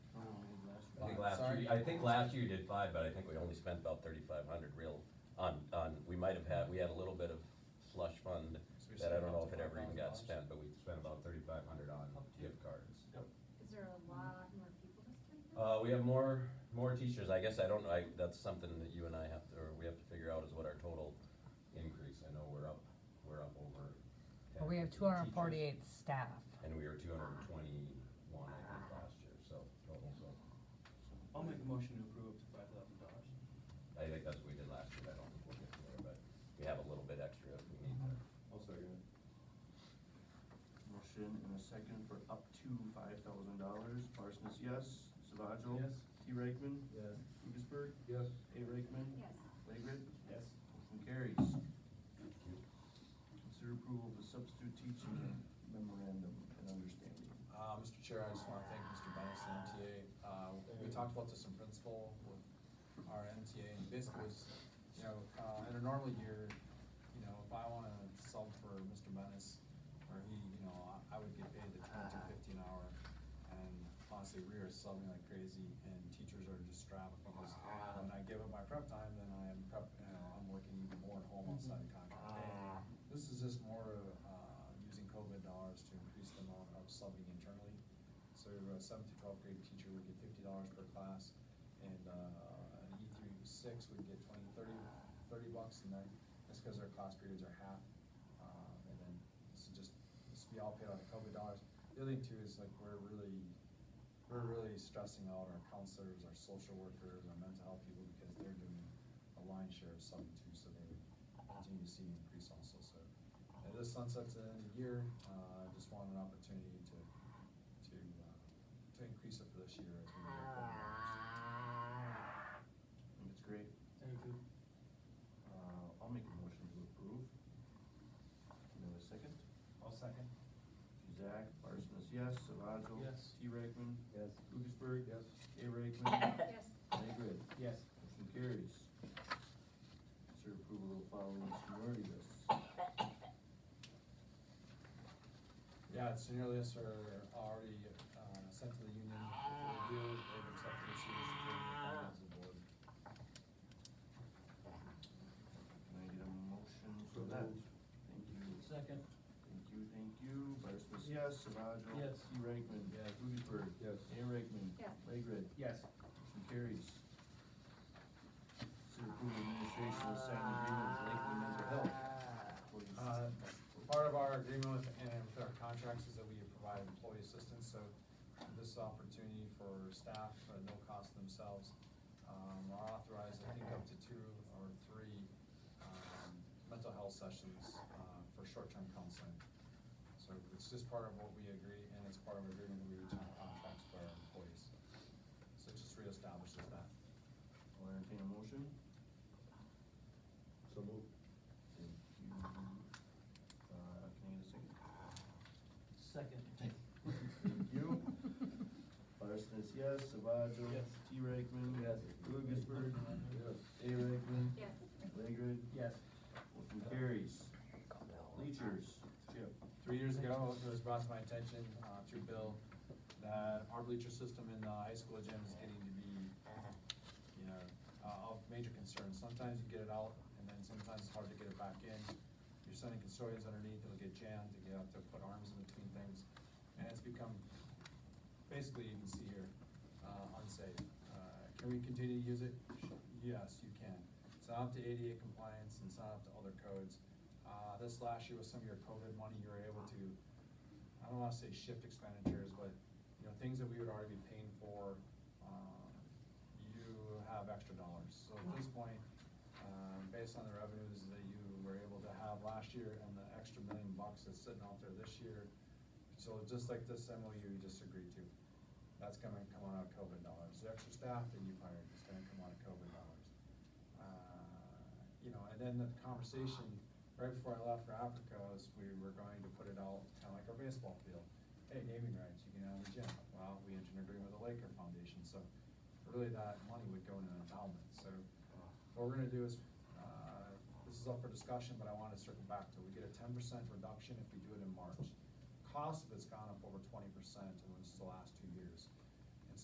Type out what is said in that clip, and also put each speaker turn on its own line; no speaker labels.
year- I think last year you did five, but I think we only spent about thirty-five hundred real on, on, we might have had, we had a little bit of slush fund
So we
that I
spent
don't know
up
if it
to
ever even got
$5,000.
spent, but we spent about thirty-five hundred on gift cards.
Is there a lot more people this time? around?
Uh, we have more, more teachers, I guess I don't, I, that's something that you and I have to, or we have to figure out is what our total increase, I know we're up, we're up over. 10
But we have
teachers,
two hundred and forty-eight staff.
And we were two hundred and twenty-one, I think, last year, so, total, so,
I'll make a motion to approve up to five thousand dollars.
I think that's what we did last year, I don't think we'll get there, but we have a little bit extra if we need to.
I'll second it.
Motion and a second for up to five thousand dollars. Parsons, yes. Savajo?
Yes.
T. Reichman?
Yes.
Lucasberg?
Yes.
A. Reichman?
Yes,
Legret?
Yes.
Motion carries. Consider approval of the substitute teaching memorandum and understanding.
Uh, Mr. Chair, I just wanna thank Mr. Bennett and MTA. Uh, we talked about this in principle with our MTA and basically was, you know, uh, in a normal year, you know, if I wanna sub for Mr. Bennett or he, you know, I I would get paid the twenty to fifty an hour. And honestly, we are subbing like crazy and teachers are just strapped because when I give up my prep time, then I am prep, you know, I'm working even more at home outside the contract day. This is just more, uh, using COVID dollars to increase the amount of subbing internally. So a seventh to twelfth grade teacher would get fifty dollars per class, and, uh, an E through six would get twenty, thirty, thirty bucks, and then, that's because their class periods are half. Uh, and then, this is just, this will be all paid out of COVID dollars. The other thing too is like, we're really, we're really stressing out our counselors, our social workers, our mental health people, because they're doing a lion's share of subbing too, so they would continue to see an increase also, so. And this sunsets at the end of the year, uh, I just want an opportunity to, to, uh, to increase it for this year as we work on
And it's great.
Thank you.
Uh, I'll make a motion to approve. You have a second?
I'll second.
Zach, Parsons, yes. Savajo?
Yes.
T. Reichman?
Yes.
Lucasberg?
Yes.
A. Reichman?
yes,
Legret?
Yes.
Motion carries. Consider approval of following seniority lists.
Yeah, it's nearly us are already, uh, sent to the union for review, they've accepted the service agreement with the finance board.
Can I get a motion for that? Thank you,
Second.
thank you, thank you. Barsmas, yes. Savajo?
Yes.
T. Reichman?
Yes.
Lucasberg?
Yes.
A. Reichman?
Yes.
Legret?
Yes.
Motion carries. Consider approval of administration to sign an agreement with Lakeland Mental Health. According to-
Uh, Part of our agreement with, and with our contracts is that we provide employee assistance, so this opportunity for staff, at no cost to themselves, um, are authorized, I think, up to two or three, um, mental health sessions, uh, for short-term counseling. So it's just part of what we agree, and it's part of an agreement that we reach on contracts for our employees. So it just reestablishes that.
I'll entertain a motion.
So move.
Thank you. Uh, can I get a second?
Second.
Thank you. Parsons, yes. Savajo?
Yes.
T. Reichman?
Yes.
Lucasberg? A. Reichman?
yes.
Legred?
Yes.
Motion carries. Bleachers. Chip.
three years ago, it was brought to my attention, uh, through Bill, that our bleacher system in the high school gym is getting to be, you know, uh, of major concern. Sometimes you get it out, and then sometimes it's hard to get it back in. You're sending custodians underneath, it'll get jammed, you have to put arms in between things, and it's become, basically, you can see here, uh, unsafe. Uh, Can we continue to use it? Yes, you can. It's not up to ADA compliance, and it's not up to other codes. Uh, this last year with some of your COVID money, you were able to, I don't wanna say shift expenditures, but, you know, things that we would already be paying for, um, you have extra dollars. So at this point, um, based on the revenues that you were able to have last year and the extra million bucks that's sitting out there this year, so just like this MOU you just agreed to, that's gonna come out of COVID dollars. The extra staff that you've hired is gonna come out of COVID dollars. Uh, You know, and then the conversation, right before I left for Africa, was we were going to put it out, kinda like our baseball field. Hey, naming rights, you can have a gym. Well, we entered an agreement with the Laker Foundation, so really that money would go in an endowment, so. What we're gonna do is, uh, this is up for discussion, but I wanna circle back to, we get a ten percent reduction if we do it in March. Cost of it's gone up over twenty percent in just the last two years.